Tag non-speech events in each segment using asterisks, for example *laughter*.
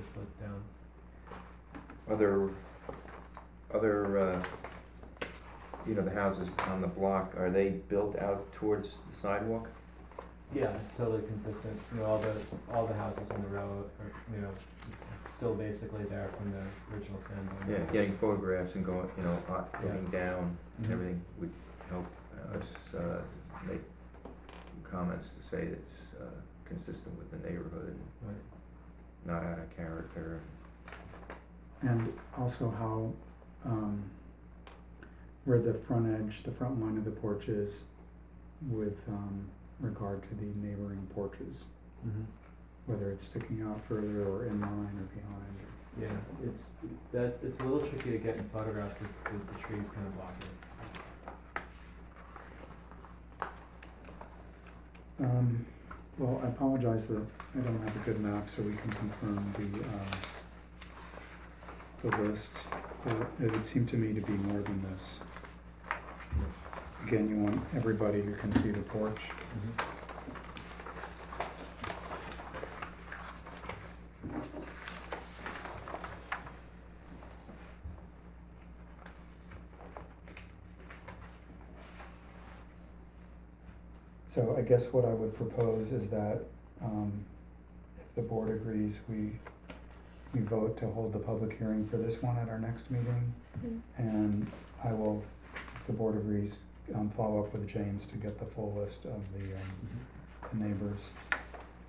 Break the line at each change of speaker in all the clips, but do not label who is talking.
to slip down.
Other, other, uh, you know, the houses on the block, are they built out towards the sidewalk?
Yeah, it's totally consistent, you know, all the, all the houses in the row are, you know, still basically there from the original sandbar.
Yeah, getting photographs and going, you know, uh,
Yeah.
looking down,
Mhm.
everything would help us, uh, make comments to say it's, uh, consistent with the neighborhood and
Right.
not out of character.
And also how, um, where the front edge, the front line of the porch is with, um, regard to the neighboring porches,
Mm-hmm.
whether it's sticking out further or in line or behind.
Yeah, it's, that, it's a little tricky to get in photographs because the, the trees kind of block it.
Um, well, I apologize that I don't have a good map, so we can confirm the, um, the list, but it would seem to me to be more than this. Again, you want everybody who can see the porch. So I guess what I would propose is that, um, if the board agrees, we, we vote to hold the public hearing for this one at our next meeting.
Mm.
And I will, if the board agrees, um, follow up with James to get the full list of the, um, the neighbors.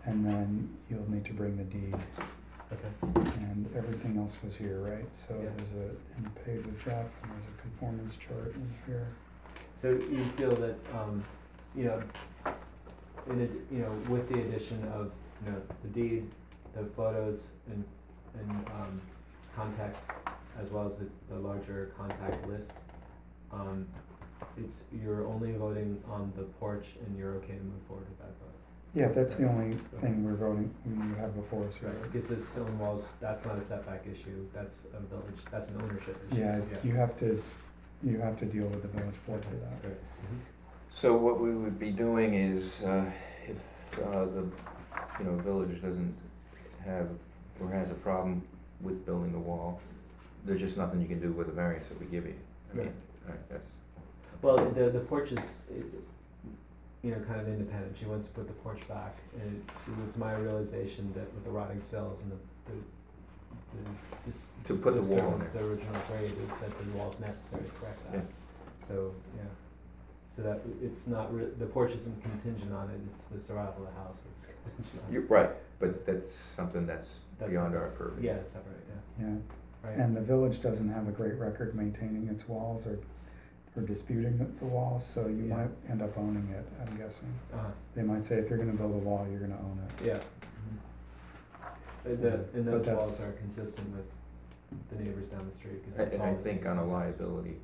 And then you'll need to bring the deed,
Okay,
and everything else was here, right? So
Yeah.
there's a, and paid with Jeff, and there's a conformance chart in here.
so you feel that, um, you know, in it, you know, with the addition of, you know, the deed, the photos and, and, um, context, as well as the, the larger contact list, um, it's, you're only voting on the porch and you're okay to move forward with that vote.
Yeah, that's the only thing we're voting, we have before us, right?
Right, because the stone walls, that's not a setback issue, that's a village, that's an ownership issue.
Yeah, you have to, you have to deal with the village board for that.
Great.
So what we would be doing is, uh, if, uh, the, you know, village doesn't have, or has a problem with building the wall, there's just nothing you can do with the variance that we give you. I mean,
Right.
Alright, that's,
Well, the, the porch is, it, you know, kind of independent, she wants to put the porch back, and it was my realization that with the rotting cells and the, the, the dis-
to put the wall in
disturbance,
there.
the original grade is that the wall's necessary to correct that.
Yeah.
So, yeah, so that, it's not re- the porch isn't contingent on it, it's the survival of the house that's *laughs* contingent on it.
You're right, but that's something that's
That's-
beyond our purview.
Yeah, it's separate, yeah,
Yeah,
right.
and the village doesn't have a great record maintaining its walls or, or disputing the- the walls, so you
Yeah.
might end up owning it, I'm guessing.
Uh-huh.
They might say, if you're gonna build a wall, you're gonna own it.
Yeah. And the, and
But
those
that's-
walls are consistent with the neighbors down the street, cause
I-
that's
And
all
I
the
think
same
on a
numbers.
liability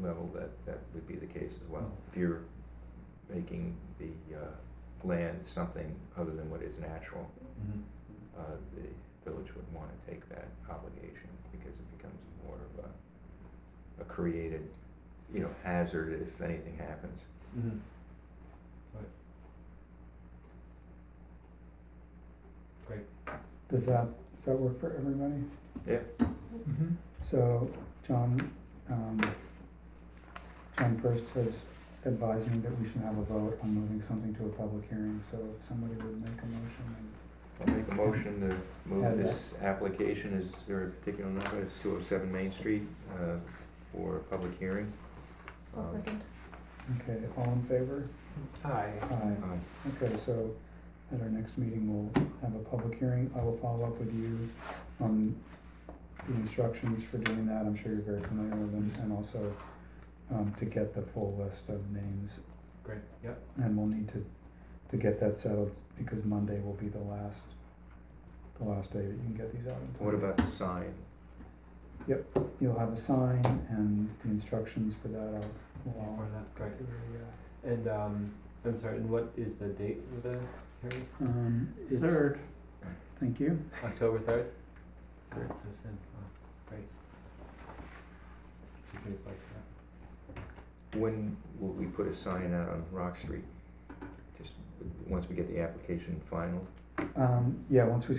level, that, that would be the case as well.
Mm.
If you're making the, uh, land something other than what is natural,
Mhm.
uh, the village would wanna take that obligation because it becomes more of a, a created, you know, hazard if anything happens.
Mhm.
Does that, does that work for everybody?
Yeah.
Mm-hmm. So, John, um, John first has advised me that we should have a vote on moving something to a public hearing, so if somebody would make a motion and
I'll make a motion to
Yeah,
move this application, is there a particular number, it's two oh seven Main Street, uh, for a public hearing.
I'll
Um,
second.
Okay, all in favor?
Hi.
Aye.
aye.
Okay, so at our next meeting, we'll have a public hearing. I will follow up with you on the instructions for doing that. I'm sure you're very familiar with them. And also, um, to get the full list of names.
Great, yep,
And we'll need to, to get that settled because Monday will be the last, the last day that you can get these out. in time.
What about the sign?
You'll have a sign and the instructions for that. I'll, we'll all-
or that, great.
uh,
And, um, I'm sorry, and what is the date of the hearing?
Um, it's-
Third.
Thank you.
October third? God, so soon, wow, great. Two things like uh, that.
When will we put a sign out on Rock Street? Just, once we get the application final?
Um, yeah, once we